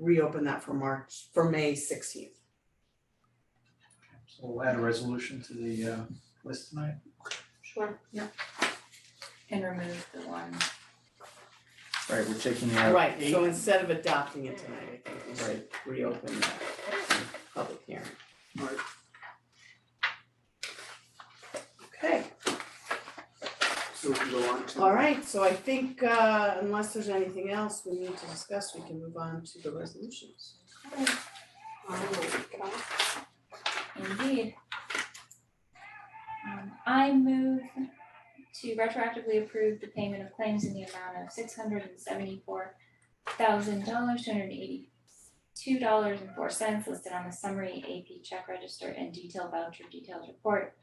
reopen that for March, for May sixteenth. So we'll add a resolution to the uh list tonight. Sure. Yeah. and remove the one. Right, we're taking out Right, eight. so instead of adopting it tonight, I think we should reopen that public hearing. Right. Okay, So we can go on to. all right, so I think uh unless there's anything else we need to discuss, we can move on to the resolutions. Indeed. Um, I move to retroactively approve the payment of claims in the amount of six hundred and seventy-four thousand dollars, two hundred and eighty-two dollars and four cents listed on the summary AP check register and detail voucher details report.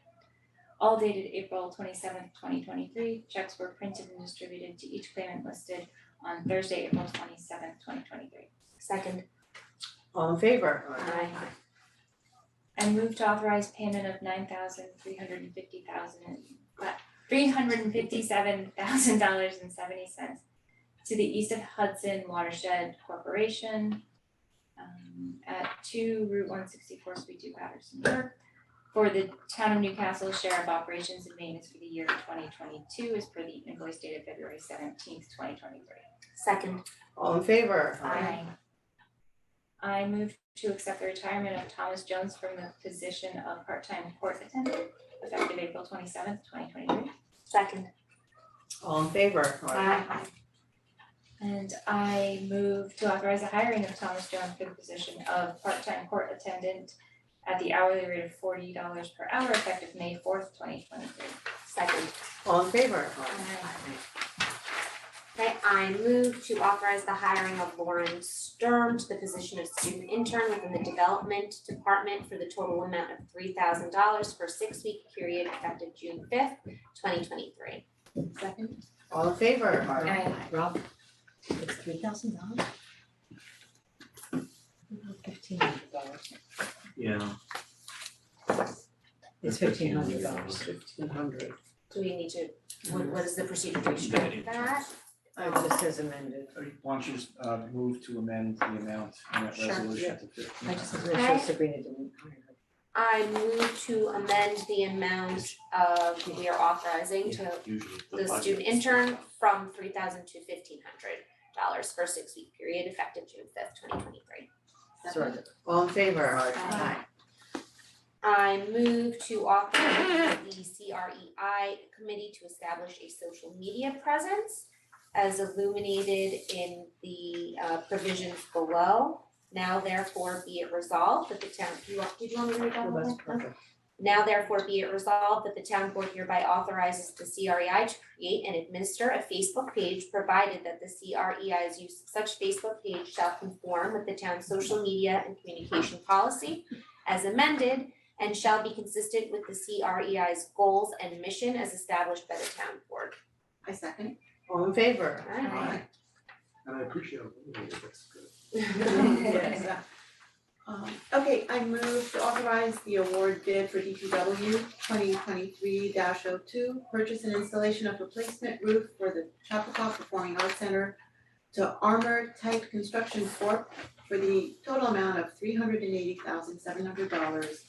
All dated April twenty-seventh, twenty twenty-three, checks were printed and distributed to each claimant listed on Thursday, April twenty-seventh, twenty twenty-three. Second. All in favor? Aye. I move to authorize payment of nine thousand three hundred and fifty thousand, three hundred and fifty-seven thousand dollars and seventy cents to the East of Hudson Watershed Corporation um, at two Route one sixty-four, Suite two Patterson, New York, for the Town of Newcastle Share of Operations and Maintenance for the year twenty twenty-two as per the invoice dated February seventeenth, twenty twenty-three. Second, All in favor? Aye. I move to accept the retirement of Thomas Jones from the position of part-time court attendant effective April twenty-seventh, twenty twenty-three. second, uh, All in favor? aye, And I move to authorize the hiring of Thomas Jones for the position of part-time court attendant at the hourly rate of forty dollars per hour effective May fourth, twenty twenty-three. second. All in favor? Okay, I move to authorize the hiring of Lauren Sturm to the position of student intern within the Development Department for the total amount of three thousand dollars for a six-week period effective June fifth, twenty twenty-three. Second. All in favor? Aye. Rob, it's three thousand dollars? Fifteen hundred dollars. Yeah. It's fifteen hundred dollars. Fifteen hundred. Do we need to, what, what is the procedure to strike that? I just as amended. Why don't you just uh move to amend the amount in that Sure. resolution to fifteen? I just as sure Sabrina didn't hire her. I move to amend the amount of, we are authorizing to usually the the student intern from three thousand to fifteen hundred dollars for a six-week period effective June fifth, twenty twenty-three. Sorry. All in favor? Aye. I move to authorize the CREI committee to establish a social media presence as illuminated in the uh, provisions below. Now therefore be it resolved that the town, do you want, did you want me to read that Well, one? that's Okay. perfect. Now therefore be it resolved that the town board hereby authorizes the CREI to create and administer a Facebook page, provided that the CREI's use of such Facebook page shall conform with the town's social media and communication policy as amended and shall be consistent with the CREI's goals and mission as established by the town board. I second. All in favor? Alright. And I appreciate it, that's good. Yes. Um, okay, I move to authorize the award bid for DPW twenty twenty-three 2 purchase and installation of replacement roof for the Chapakaw Performing Arts Center to Armor Type Construction Corp for the total amount of three hundred and eighty thousand seven hundred dollars,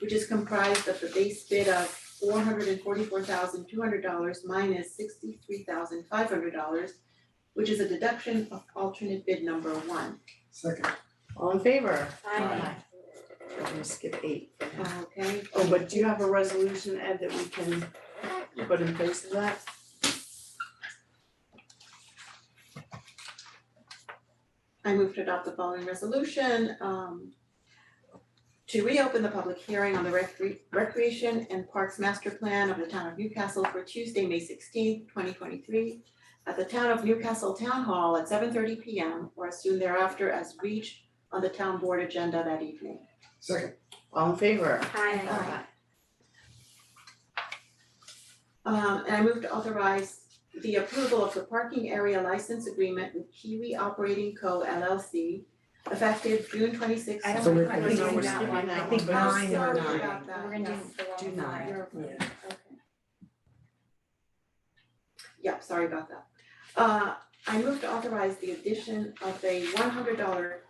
which is comprised of the base bid of four hundred and forty-four thousand two hundred dollars minus sixty-three thousand five hundred dollars, which is a deduction of alternate bid number one. Second. All in favor? Aye. I'm gonna skip eight. Okay. Oh, but do you have a resolution, Ed, that we can put in place of that? I move to adopt the following resolution, um, to reopen the public hearing on the recre- recreation and parks master plan of the town of Newcastle for Tuesday, May sixteenth, twenty twenty-three at the town of Newcastle Town Hall at seven thirty P M or as soon thereafter as reached on the town board agenda that evening. Second. All in favor? Aye. Um, and I move to authorize the approval of the parking area license agreement with Kiwi Operating Co. LLC effective June twenty-sixth. I don't So we're- I think don't we're know skipping that one. that I think one. I'm nine or sorry nine. about that. We're gonna do Yes. the one do for nine, your- Okay. Yep, sorry about that. Uh, I move to authorize the addition of a one hundred dollar